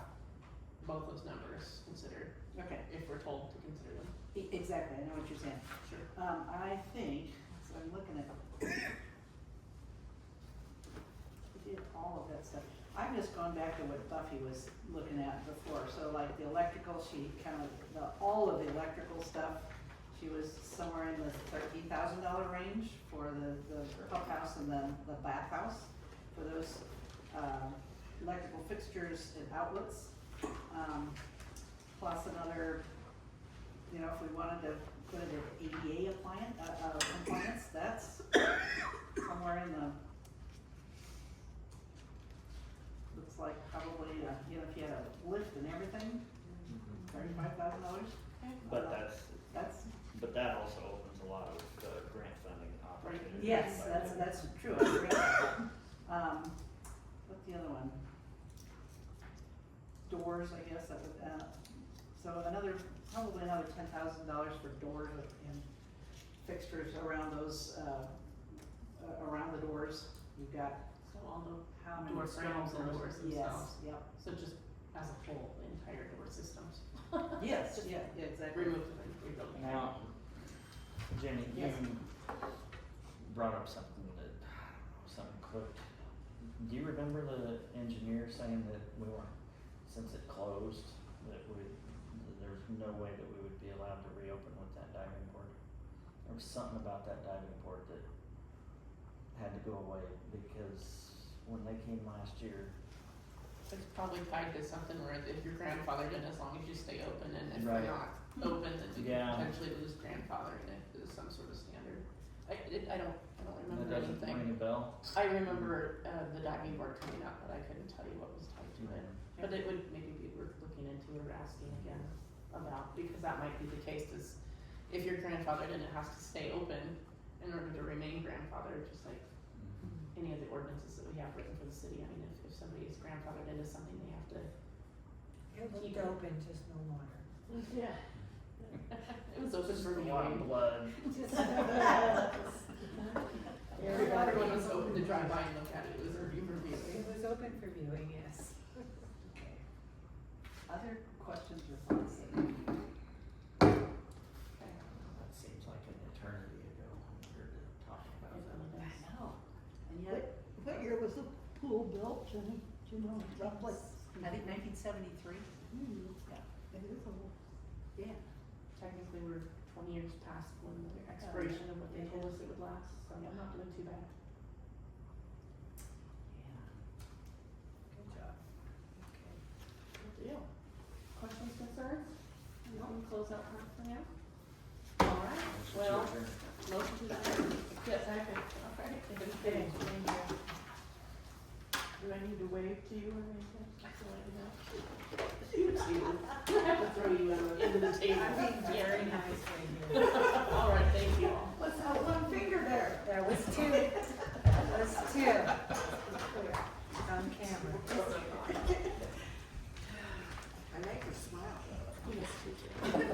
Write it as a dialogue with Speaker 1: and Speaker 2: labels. Speaker 1: both those numbers considered,
Speaker 2: Okay,
Speaker 1: if we're told to consider them.
Speaker 2: e- exactly, I know what you're saying.
Speaker 1: Sure.
Speaker 2: Um, I think, so I'm looking at. We did all of that stuff. I've just gone back to what Buffy was looking at before, so like the electrical, she counted the, all of the electrical stuff. She was somewhere in the thirteen thousand dollar range for the, the clubhouse and the, the bathhouse, for those, um, electrical fixtures and outlets. Um, plus another you know, if we wanted to put it at ADA appliance, uh, uh, compliance, that's somewhere in the, looks like probably, uh, you know, if you had a lift and everything, thirty-five thousand dollars.
Speaker 3: But that's,
Speaker 2: That's,
Speaker 3: but that also opens a lot of uh, grant funding opportunities.
Speaker 2: yes,
Speaker 3: by
Speaker 2: that's,
Speaker 3: the-
Speaker 2: that's true, I agree. Um, what's the other one? Doors, I guess, that would, uh, so another, probably another ten thousand dollars for doors and fixtures around those, uh, uh, around the doors. You've got
Speaker 1: So all the
Speaker 2: how many
Speaker 1: door
Speaker 2: frames
Speaker 1: frames and
Speaker 2: those-
Speaker 1: doors
Speaker 2: Yes,
Speaker 1: themselves.
Speaker 2: yep,
Speaker 1: So just as a whole, the entire door systems.
Speaker 2: yes,
Speaker 1: Just
Speaker 2: yeah, yeah, exactly.
Speaker 1: Remove them and rebuild them.
Speaker 3: Now, Jenny, you
Speaker 2: Yes.
Speaker 3: brought up something that, something clicked. Do you remember the engineer saying that we weren't, since it closed, that we, that there's no way that we would be allowed to reopen with that diving board? There was something about that diving board that had to go away because when they came last year,
Speaker 1: It's probably tied to something where if your grandfather did, as long as you stay open, and if
Speaker 3: Right.
Speaker 1: you're not open, then you
Speaker 3: Yeah.
Speaker 1: could potentially lose grandfathering if there's some sort of standard. I, it, I don't, I don't
Speaker 3: that
Speaker 1: remember
Speaker 3: doesn't ring a
Speaker 1: anything.
Speaker 3: bell.
Speaker 1: I remember, uh, the diving board coming up, but I couldn't tell you what was tied to it. But it would maybe be worth looking into or asking again about, because that might be the case is if your grandfather didn't have to stay open in order to remain grandfathered, just like any of the ordinances that we have written for the city, I mean, if, if somebody is grandfathered into something, they have to.
Speaker 4: It
Speaker 1: Keep
Speaker 4: looked
Speaker 1: it.
Speaker 4: open, just no water.
Speaker 1: Yeah. It was open for
Speaker 3: A
Speaker 1: me.
Speaker 3: lot of blood.
Speaker 1: Everyone was open to drive by and look at it, it was a review for
Speaker 4: It was open for viewing, yes.
Speaker 2: Okay. Other questions or thoughts?
Speaker 3: That seems like an eternity ago when we were talking about that.
Speaker 1: I
Speaker 2: know. And yet,
Speaker 5: What year was the pool built, Jenny? Do you know roughly?
Speaker 2: I think nineteen seventy-three?
Speaker 5: Hmm,
Speaker 2: Yeah.
Speaker 5: It is old.
Speaker 2: Yeah.
Speaker 1: Technically, we're twenty years past when the expiration of what they told us it would last, so I'm not doing too bad.
Speaker 2: Yeah.
Speaker 4: Good job. Okay.
Speaker 1: Good deal. Questions, concerns? No, we close out front for now? Alright, well, motion to adjourn. Yes, I can, alright, if it's finished, then you- Do I need to wave to you or anything? Just wave now. You, I have to throw you in the, into the table.
Speaker 4: I'm being very nice right here.